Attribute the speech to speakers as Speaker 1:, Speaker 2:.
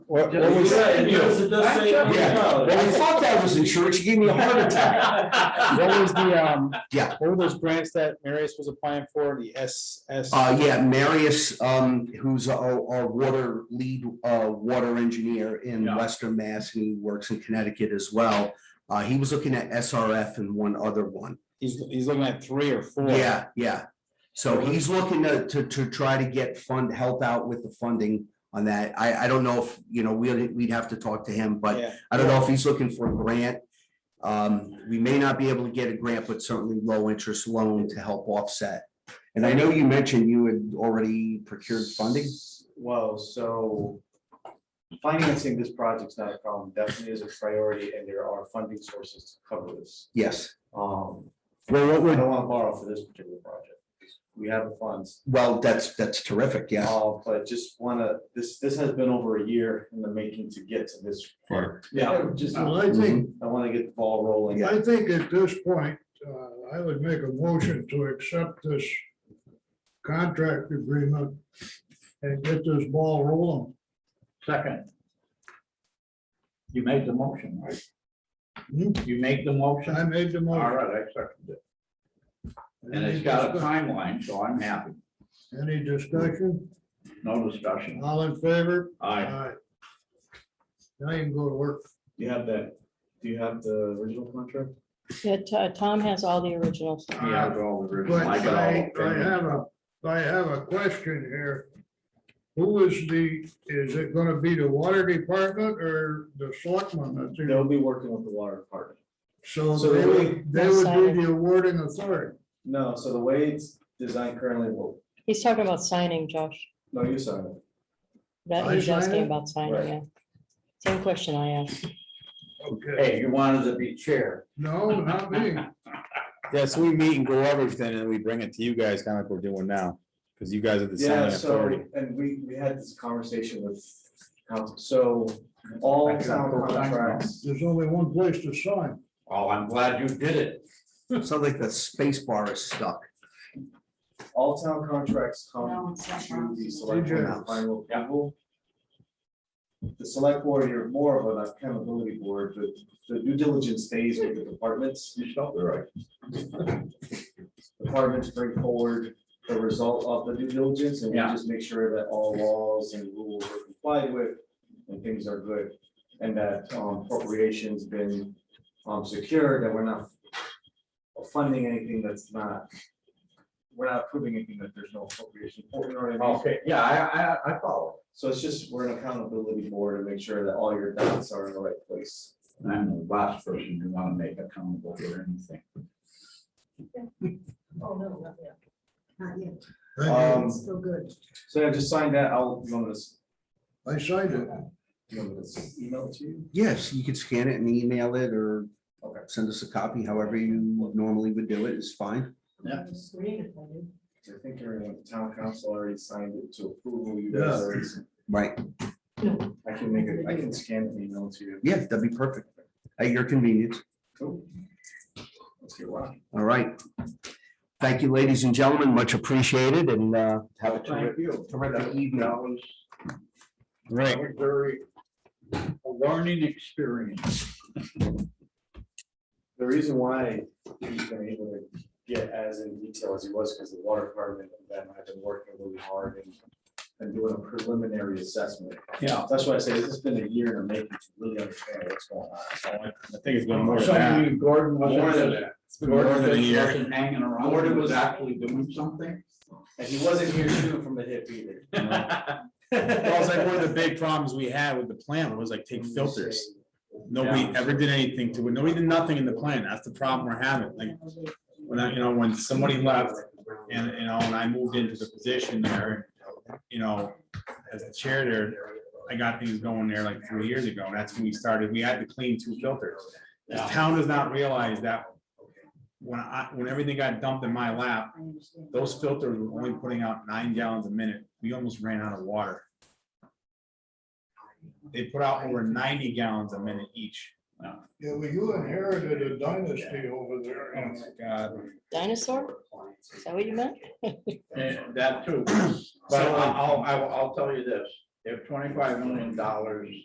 Speaker 1: What, what was?
Speaker 2: Yeah,
Speaker 1: When
Speaker 2: because it does say
Speaker 3: Yeah.
Speaker 1: I
Speaker 2: $100.
Speaker 1: thought that was insurance, you gave me a heart attack.
Speaker 3: What was the, um?
Speaker 1: Yeah.
Speaker 3: What were those grants that Marius was applying for, the S, S?
Speaker 1: Uh, yeah, Marius, um, who's our, our water lead, uh, water engineer in
Speaker 2: Yeah.
Speaker 1: Western Mass, and he works in Connecticut as well. Uh, he was looking at SRF and one other one.
Speaker 3: He's, he's looking at three or four.
Speaker 1: Yeah, yeah. So he's looking to, to, to try to get fund, help out with the funding on that. I, I don't know if, you know, we'd, we'd have to talk to him, but
Speaker 3: Yeah.
Speaker 1: I don't know if he's looking for a grant. Um, we may not be able to get a grant, but certainly low interest loan to help offset. And I know you mentioned you had already procured funding.
Speaker 4: Well, so financing this project's not a problem, definitely is a priority, and there are funding sources to cover this.
Speaker 1: Yes,
Speaker 4: Um,
Speaker 1: well,
Speaker 4: I
Speaker 1: what would,
Speaker 4: don't want to borrow for this particular project. We have the funds,
Speaker 1: well, that's, that's terrific, yeah.
Speaker 4: uh, but just wanna, this, this has been over a year in the making to get to this. part.
Speaker 2: Yeah,
Speaker 5: Just, I think,
Speaker 4: I wanna get the ball rolling.
Speaker 5: I think at this point, uh, I would make a motion to accept this contract agreement and get this ball rolling.
Speaker 6: Second. You make the motion, right?
Speaker 5: Hmm?
Speaker 6: You make the
Speaker 5: I
Speaker 6: motion,
Speaker 5: made the
Speaker 6: all
Speaker 5: motion.
Speaker 6: right, I second it, and it's got a timeline, so I'm happy,
Speaker 5: Any discussion?
Speaker 6: no discussion,
Speaker 5: All in favor?
Speaker 6: I,
Speaker 5: Now you can go to work.
Speaker 4: Do you have that, do you have the original contract?
Speaker 7: Yeah, T- uh, Tom has all the originals.
Speaker 6: he has all the original,
Speaker 5: But
Speaker 6: I got all.
Speaker 5: I,
Speaker 6: the
Speaker 5: I
Speaker 6: original.
Speaker 5: have a, I have a question here. Who is the, is it gonna be the water department or the selectmen? that's in-
Speaker 4: They'll be working with the water department.
Speaker 5: So
Speaker 4: So
Speaker 5: they
Speaker 4: the way-
Speaker 5: would, they would be the awarding authority.
Speaker 4: No, so the way it's designed currently, well,
Speaker 7: He's talking about signing, Josh.
Speaker 4: no, you sign it.
Speaker 7: That
Speaker 5: I
Speaker 7: he's asking
Speaker 5: signing?
Speaker 7: about signing, yeah. Same question I asked.
Speaker 5: Okay.
Speaker 6: Hey, you wanted to be chair,
Speaker 5: No, not me.
Speaker 3: Yeah, so we meet and go over everything and we bring it to you guys, kind of like we're doing now, because you guys are the
Speaker 4: Yeah,
Speaker 3: signing
Speaker 4: so,
Speaker 3: authority.
Speaker 4: and we, we had this conversation with council, so all town contracts,
Speaker 5: There's only one place to sign.
Speaker 6: oh, I'm glad you did it,
Speaker 1: Sounds like the space bar is stuck.
Speaker 4: all town contracts
Speaker 8: No,
Speaker 4: come
Speaker 8: it's not
Speaker 4: to
Speaker 8: possible.
Speaker 4: the select board for final approval. The select board, you're more of an accountability board, but the due diligence stays with the departments.
Speaker 6: you felt the right,
Speaker 4: Departments bring forward the result of the due diligence and we
Speaker 6: Yeah.
Speaker 4: just make sure that all laws and rules are complied with and things are good. And that um, appropriation's been um, secured, that we're not funding anything that's not, we're not approving anything that there's no appropriation for. you know what I mean?
Speaker 6: okay, yeah, I, I, I follow.
Speaker 4: So it's just, we're an accountability board to make sure that all your dots are in the right place.
Speaker 6: I'm the last person you wanna make accountable for anything,
Speaker 8: Oh, no, not yet. Not yet,
Speaker 5: Thank
Speaker 4: Um,
Speaker 8: it's still good.
Speaker 4: So I just signed that, I'll, you want me to s-
Speaker 5: you. I signed it.
Speaker 4: you want me to s- email it to you?
Speaker 1: Yes, you could scan it and email it or
Speaker 4: Okay.
Speaker 1: send us a copy, however you normally would do it is fine.
Speaker 6: Yeah.
Speaker 8: I'm just reading it, I do.
Speaker 4: I think everyone, the town council already signed it to approval. You guys, already-
Speaker 1: Right,
Speaker 4: I can make it, I can scan the email to you.
Speaker 1: yeah, that'd be perfect. At your convenience.
Speaker 4: Cool. Let's get rocking.
Speaker 1: All right. Thank you, ladies and gentlemen. Much appreciated and uh, have a terrific
Speaker 6: thank you.
Speaker 1: terrific evening.
Speaker 6: That was
Speaker 3: Right.
Speaker 6: That was Very, a learning experience.
Speaker 4: The reason why he's been able to get as in detail as he was, because the water department and them have been working really hard and. And doing a preliminary assessment.
Speaker 6: Yeah.
Speaker 4: That's why I say this has been a year in the making to really understand what's going on. So I want-
Speaker 3: I think it's been more than that.
Speaker 6: Something Gordon was.
Speaker 4: More than-
Speaker 6: Gordon
Speaker 3: more than a year.
Speaker 6: wasn't hanging around.
Speaker 4: Gordon
Speaker 6: Gordon
Speaker 4: was-
Speaker 6: was actually doing something.
Speaker 4: And he wasn't here shooting from the hip either.
Speaker 3: Well, it's like one of the big problems we had with the plan was like take filters. Nobody ever did anything to it. Nobody did nothing in the plan. That's the problem we're having. Like, when I, you know, when somebody left and, you know, and I moved into the position there, you know, as the chair there, I got things going there like three years ago. And that's when we started. We had to clean two filters. The town does not realize that when I, when everything got dumped in my lap,
Speaker 8: I understand.
Speaker 3: those filters were only putting out nine gallons a minute. We almost ran out of water. They put out over ninety gallons a minute each.
Speaker 5: Yeah, well, you inherited a dynasty over there.
Speaker 3: Oh my God.
Speaker 7: Dinosaur? Is that what you meant?
Speaker 6: And
Speaker 4: um,
Speaker 6: that too. But I'll, I'll, I'll tell you this, if twenty-five million dollars